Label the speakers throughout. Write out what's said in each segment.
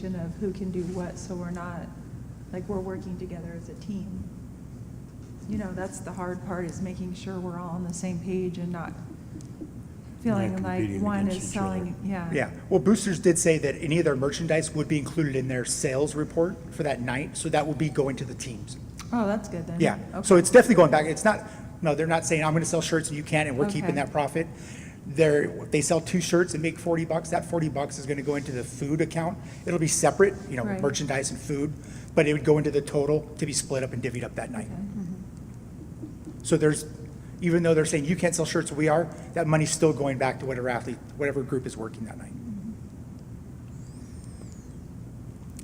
Speaker 1: coordination of who can do what, so we're not, like, we're working together as a team. You know, that's the hard part, is making sure we're all on the same page and not feeling
Speaker 2: Not
Speaker 1: like
Speaker 2: competing
Speaker 1: one
Speaker 2: against
Speaker 1: is
Speaker 2: each other.
Speaker 1: selling, yeah.
Speaker 3: Yeah, well, Boosters did say that any of their merchandise would be included in their sales report for that night, so that would be going to the teams.
Speaker 1: Oh, that's good then.
Speaker 3: Yeah,
Speaker 1: Okay.
Speaker 3: so it's definitely going back, it's not, no, they're not saying, I'm gonna sell shirts and you can't, and we're keeping
Speaker 1: Okay.
Speaker 3: that profit. They're, if they sell two shirts and make forty bucks, that forty bucks is gonna go into the food account. It'll be separate, you know,
Speaker 1: Right.
Speaker 3: merchandise and food, but it would go into the total to be split up and divvied up that night.
Speaker 1: Okay. Mm-hmm.
Speaker 3: So there's, even though they're saying you can't sell shirts, we are, that money's still going back to whatever athlete, whatever group is working that night.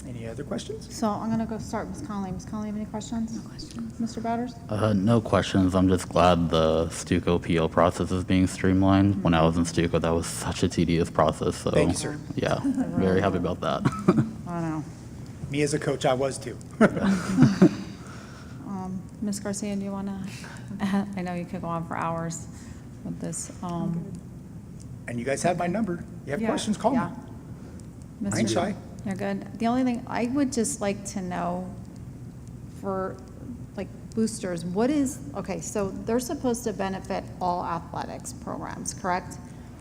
Speaker 1: Mm-hmm.
Speaker 3: Any other questions?
Speaker 4: So I'm going to go start with Ms. Conley. Ms. Conley, have any questions? No questions. Mr. Bowders?
Speaker 5: Uh, no questions. I'm just glad the Stuco PO process is being streamlined. When I was in Stuco, that was such a tedious process. So,
Speaker 3: Thank you, sir.
Speaker 5: Yeah, very happy about that.
Speaker 4: I know.
Speaker 3: Me as a coach, I was too.
Speaker 4: Um, Ms. Garcia, do you want to, I know you could go on for hours with this. um,
Speaker 3: And you guys have my number. You have
Speaker 1: Yeah.
Speaker 3: questions, call me.
Speaker 4: Yeah.
Speaker 3: I ain't
Speaker 4: Mr.
Speaker 3: shy.
Speaker 4: You're good. The only thing, I would just like to know for, like, boosters, what is, okay, so they're supposed to benefit all athletics programs, correct?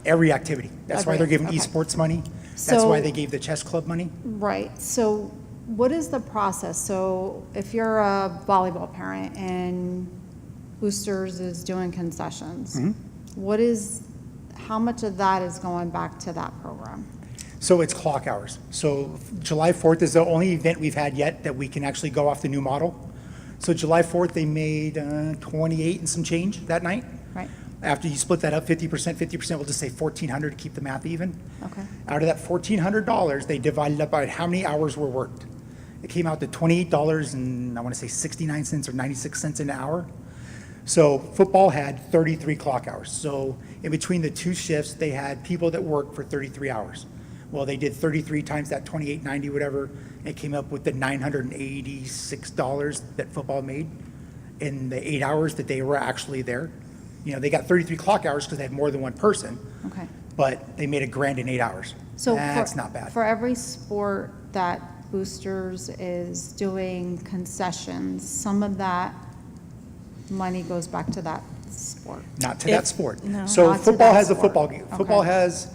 Speaker 3: Every activity. That's why they're
Speaker 4: Every-
Speaker 3: giving
Speaker 4: okay.
Speaker 3: esports money. That's
Speaker 4: So-
Speaker 3: why they gave the chess club money.
Speaker 4: Right, so what is the process? So if you're a volleyball parent and Boosters is doing concessions,
Speaker 3: Mm-hmm.
Speaker 4: what is, how much of that is going back to that program?
Speaker 3: So it's clock hours. So July 4th is the only event we've had yet that we can actually go off the new model. So July 4th, they made uh, 28 and some change that night.
Speaker 4: Right.
Speaker 3: After you split that up, 50%, 50%, we'll just say 1,400 to keep the math even.
Speaker 4: Okay.
Speaker 3: Out of that $1,400, they divided up by how many hours were worked. It came out to $28 and I want to say 69 cents or 96 cents an hour. So football had 33 clock hours. So in between the two shifts, they had people that worked for 33 hours. Well, they did 33 times that 2890, whatever, and it came up with the $986 that football made in the eight hours that they were actually there. You know, they got 33 clock hours because they had more than one person,
Speaker 4: Okay.
Speaker 3: but they made a grand in eight hours.
Speaker 4: So for-
Speaker 3: That's not bad.
Speaker 4: For every sport that Boosters is doing concessions, some of that money goes back to that sport.
Speaker 3: Not to that sport.
Speaker 4: no.
Speaker 3: So
Speaker 4: Not to
Speaker 3: football
Speaker 4: that
Speaker 3: has a
Speaker 4: sport.
Speaker 3: football game. Football
Speaker 4: Okay.
Speaker 3: has,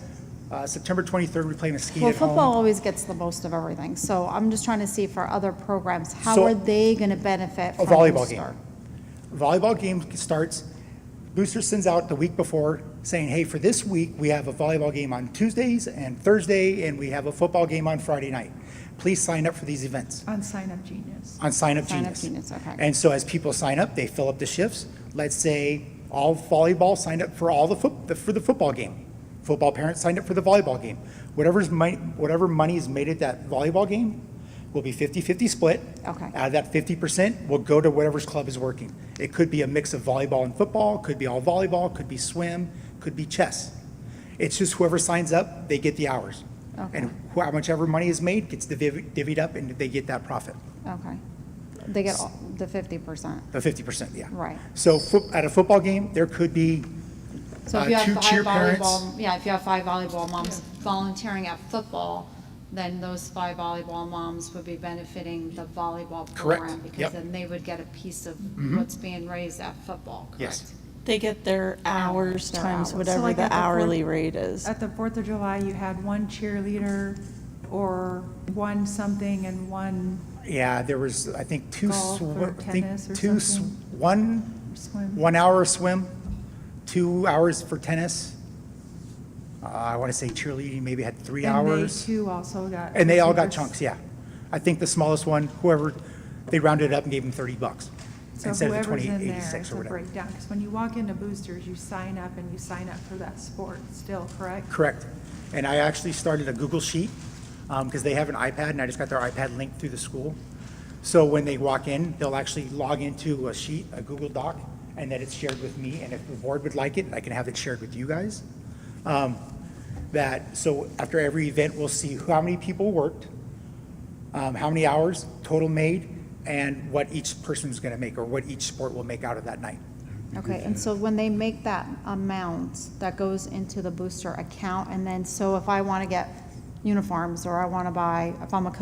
Speaker 3: uh, September 23rd, we're playing a ski
Speaker 4: Well,
Speaker 3: at home.
Speaker 4: football always gets the most of everything, so I'm just trying to see for other programs, how
Speaker 3: So-
Speaker 4: are they going to benefit
Speaker 3: a
Speaker 4: from
Speaker 3: volleyball game.
Speaker 4: Booster?
Speaker 3: Volleyball game starts, Booster sends out the week before saying, hey, for this week, we have a volleyball game on Tuesdays and Thursday, and we have a football game on Friday night. Please sign up for these events
Speaker 1: On Sign Up Genius.
Speaker 3: on Sign Up
Speaker 4: Sign Up
Speaker 3: Genius.
Speaker 4: Genius, okay.
Speaker 3: And so as people sign up, they fill up the shifts. Let's say all volleyball signed up for all the foot, for the football game. Football parents signed up for the volleyball game. Whatever's money, whatever money is made at that volleyball game will be 50-50 split.
Speaker 4: Okay.
Speaker 3: Out of that 50% will go to whatever's club is working. It could be a mix of volleyball and football, could be all volleyball, could be swim, could be chess. It's just whoever signs up, they get the hours.
Speaker 4: Okay.
Speaker 3: And wh- how much ever money is made gets divvy- divvied up and they get that profit.
Speaker 4: Okay. They get all- the 50%.
Speaker 3: The fifty percent, yeah.
Speaker 4: Right.
Speaker 3: So fo- at a football game, there could be
Speaker 4: So
Speaker 3: Uh,
Speaker 4: if you
Speaker 3: two
Speaker 4: have
Speaker 3: cheer
Speaker 4: five
Speaker 3: parents.
Speaker 4: volleyball, yeah, if you have five volleyball moms volunteering at football, then those five volleyball moms would be benefiting the volleyball
Speaker 3: Correct.
Speaker 4: program.
Speaker 3: Yep. Mm-hmm.
Speaker 4: Because then they would get a piece of what's being raised at football,
Speaker 3: Yes.
Speaker 4: correct?
Speaker 6: They get their hours
Speaker 4: Their
Speaker 6: times
Speaker 4: hours.
Speaker 1: So
Speaker 6: whatever
Speaker 1: like at the
Speaker 6: the
Speaker 1: fourth-
Speaker 6: hourly rate is.
Speaker 1: At the Fourth of July, you had one cheerleader or one something and one
Speaker 3: yeah, there was, I think, two,
Speaker 1: Golf
Speaker 3: sw-
Speaker 1: or
Speaker 3: I think,
Speaker 1: tennis or
Speaker 3: two, sw-
Speaker 1: something?
Speaker 3: one,
Speaker 1: swim.
Speaker 3: one hour of swim, two hours for tennis. Uh, I want to say cheerleading maybe had three
Speaker 1: And they
Speaker 3: hours.
Speaker 1: too also got.
Speaker 3: And they all got
Speaker 1: 50%.
Speaker 3: chunks, yeah. I think the smallest one, whoever, they rounded up and gave them thirty bucks
Speaker 1: So
Speaker 3: instead of the
Speaker 1: whoever's
Speaker 3: twenty
Speaker 1: in there,
Speaker 3: eighty-six
Speaker 1: it's
Speaker 3: or
Speaker 1: a
Speaker 3: whatever.
Speaker 1: breakdown, because when you walk into Boosters, you sign up and you sign up for that sport still, correct?
Speaker 3: Correct. And I actually started a Google Sheet, because they have an iPad, and I just got their iPad linked through the school. So when they walk in, they'll actually log into a sheet, a Google Doc, and then it's shared with me, and if the board would like it, I can have it shared with you guys. Um, That, so after every event, we'll see who- how many people worked, um, how many hours total made, and what each person's gonna make, or what each sport will make out of that night.
Speaker 4: Okay, and so when they make that amount, that goes into the booster account, and then, so if I want to get, uniforms, or I want to buy, if I'm a coach